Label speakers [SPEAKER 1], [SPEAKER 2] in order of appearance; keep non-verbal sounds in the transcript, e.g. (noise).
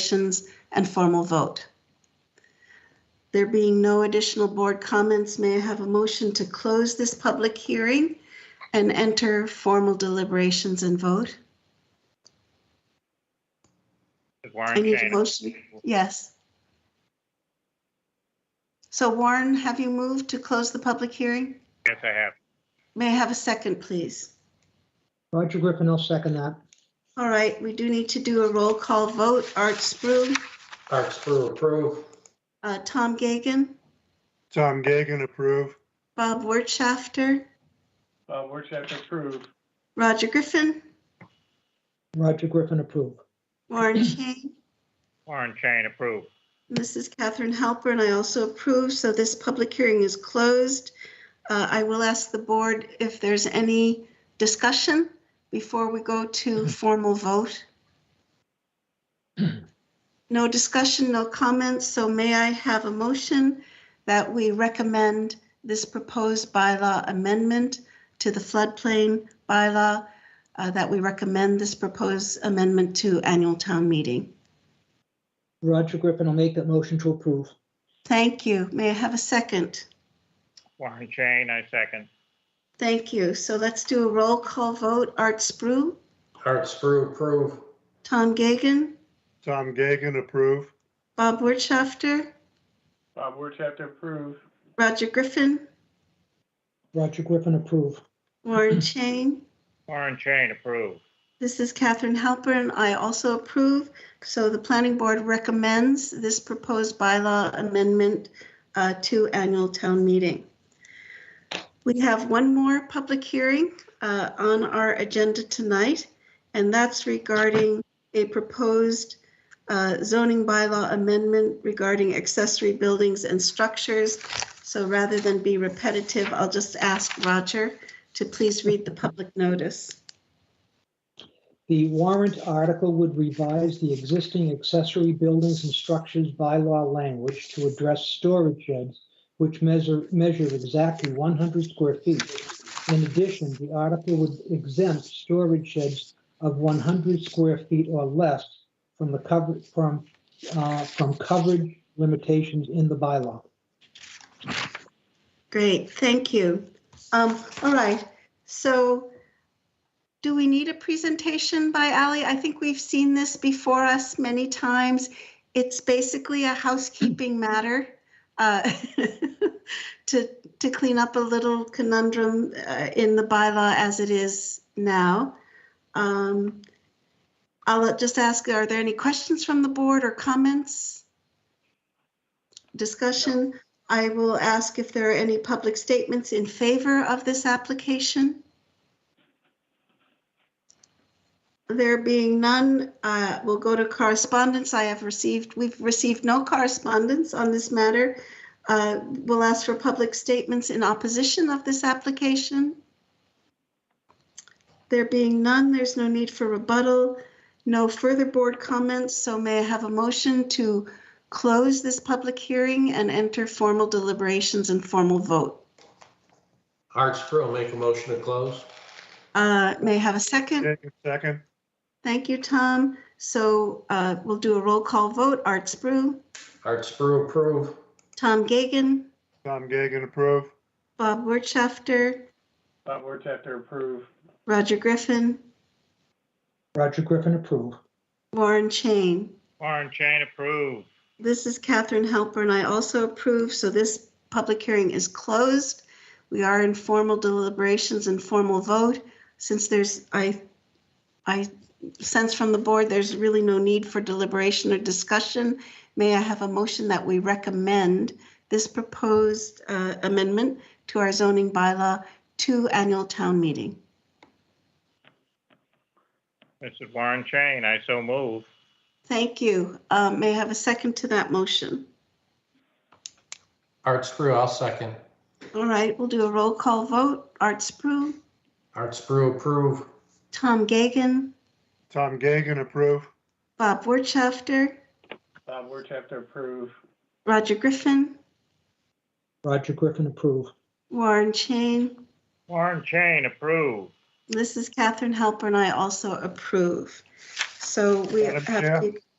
[SPEAKER 1] deliberations, and formal vote. There being no additional board comments, may I have a motion to close this public hearing and enter formal deliberations and vote?
[SPEAKER 2] Warren
[SPEAKER 1] I need a
[SPEAKER 2] Chain.
[SPEAKER 1] motion. Yes. So Warren, have you moved to close the public hearing?
[SPEAKER 2] Yes, I have.
[SPEAKER 1] May I have a second, please?
[SPEAKER 3] Roger Griffin will second that.
[SPEAKER 1] All right, we do need to do a roll call vote. Art Spru,
[SPEAKER 4] Art Spru, approve.
[SPEAKER 1] uh, Tom Gagan,
[SPEAKER 5] Tom Gagan, approve.
[SPEAKER 1] Bob Wertschafter,
[SPEAKER 6] Bob Wertheimer, approve.
[SPEAKER 1] Roger Griffin,
[SPEAKER 3] Roger Griffin approve.
[SPEAKER 1] Warren Chain,
[SPEAKER 2] Warren Chain, approve.
[SPEAKER 1] Mrs. Catherine Halpern, I also approve, so this public hearing is closed. Uh, I will ask the board if there's any discussion before we go to formal vote. No discussion, no comments, so may I have a motion that we recommend this proposed bylaw amendment to the floodplain bylaw, uh, that we recommend this proposed amendment to annual town meeting?
[SPEAKER 3] Roger Griffin will make that motion to approve.
[SPEAKER 1] Thank you. May I have a second?
[SPEAKER 2] Warren Chain, I second.
[SPEAKER 1] Thank you. So let's do a roll call vote. Art Spru,
[SPEAKER 4] Art Spru, approve.
[SPEAKER 1] Tom Gagan,
[SPEAKER 5] Tom Gagan, approve.
[SPEAKER 1] Bob Wertschafter,
[SPEAKER 6] Bob Wertheimer, approve.
[SPEAKER 1] Roger Griffin,
[SPEAKER 3] Roger Griffin approve.
[SPEAKER 1] (clears throat) Warren Chain.
[SPEAKER 2] Warren Chain, approve.
[SPEAKER 1] This is Catherine Halpern. I also approve. So the planning board recommends this proposed bylaw amendment uh, to annual town meeting. We have one more public hearing uh, on our agenda tonight, and that's regarding a proposed uh, zoning bylaw amendment regarding accessory buildings and structures. So rather than be repetitive, I'll just ask Roger to please read the public notice.
[SPEAKER 3] The warrant article would revise the existing accessory buildings and structures bylaw language to address storage sheds, which measure, measure exactly 100 square feet. In addition, the article would exempt storage sheds of 100 square feet or less from the cover, from, uh, from coverage limitations in the bylaw.
[SPEAKER 1] Great, thank you. Um, all right, so do we need a presentation by Ali? I think we've seen this before us many times. It's basically a housekeeping matter uh, (laughs) to, to clean up a little conundrum uh, in the bylaw as it is now. Um, I'll just ask, are there any questions from the board or comments? Discussion? I will ask if there are any public statements in favor of this application. There being none, uh, we'll go to correspondence. I have received, we've received no correspondence on this matter. Uh, We'll ask for public statements in opposition of this application. There being none, there's no need for rebuttal. No further board comments, so may I have a motion to close this public hearing and enter formal deliberations and formal vote.
[SPEAKER 4] Art Spru, make a motion to close.
[SPEAKER 1] Uh, May I have a second?
[SPEAKER 5] Gagan, second.
[SPEAKER 1] Thank you, Tom. So uh, we'll do a roll call vote. Art Spru,
[SPEAKER 4] Art Spru, approve.
[SPEAKER 1] Tom Gagan,
[SPEAKER 5] Tom Gagan, approve.
[SPEAKER 1] Bob Wertschafter,
[SPEAKER 6] Bob Wertheimer, approve.
[SPEAKER 1] Roger Griffin,
[SPEAKER 3] Roger Griffin approve.
[SPEAKER 1] Warren Chain.
[SPEAKER 2] Warren Chain, approve.
[SPEAKER 1] This is Catherine Halpern. I also approve, so this public hearing is closed. We are in formal deliberations and formal vote. Since there's, I, I sense from the board, there's really no need for deliberation or discussion. May I have a motion that we recommend this proposed uh, amendment to our zoning bylaw to annual town meeting?
[SPEAKER 2] This is Warren Chain, I so move.
[SPEAKER 1] Thank you. Uh, May I have a second to that motion?
[SPEAKER 4] Art Spru, I'll second.
[SPEAKER 1] All right, we'll do a roll call vote. Art Spru,
[SPEAKER 4] Art Spru, approve.
[SPEAKER 1] Tom Gagan,
[SPEAKER 5] Tom Gagan, approve.
[SPEAKER 1] Bob Wertschafter,
[SPEAKER 6] Bob Wertheimer, approve.
[SPEAKER 1] Roger Griffin,
[SPEAKER 3] Roger Griffin approve.
[SPEAKER 1] Warren Chain.
[SPEAKER 2] Warren Chain, approve.
[SPEAKER 1] This is Catherine Halpern. I also approve. So we
[SPEAKER 5] Madam
[SPEAKER 1] have
[SPEAKER 5] Chair?
[SPEAKER 1] to,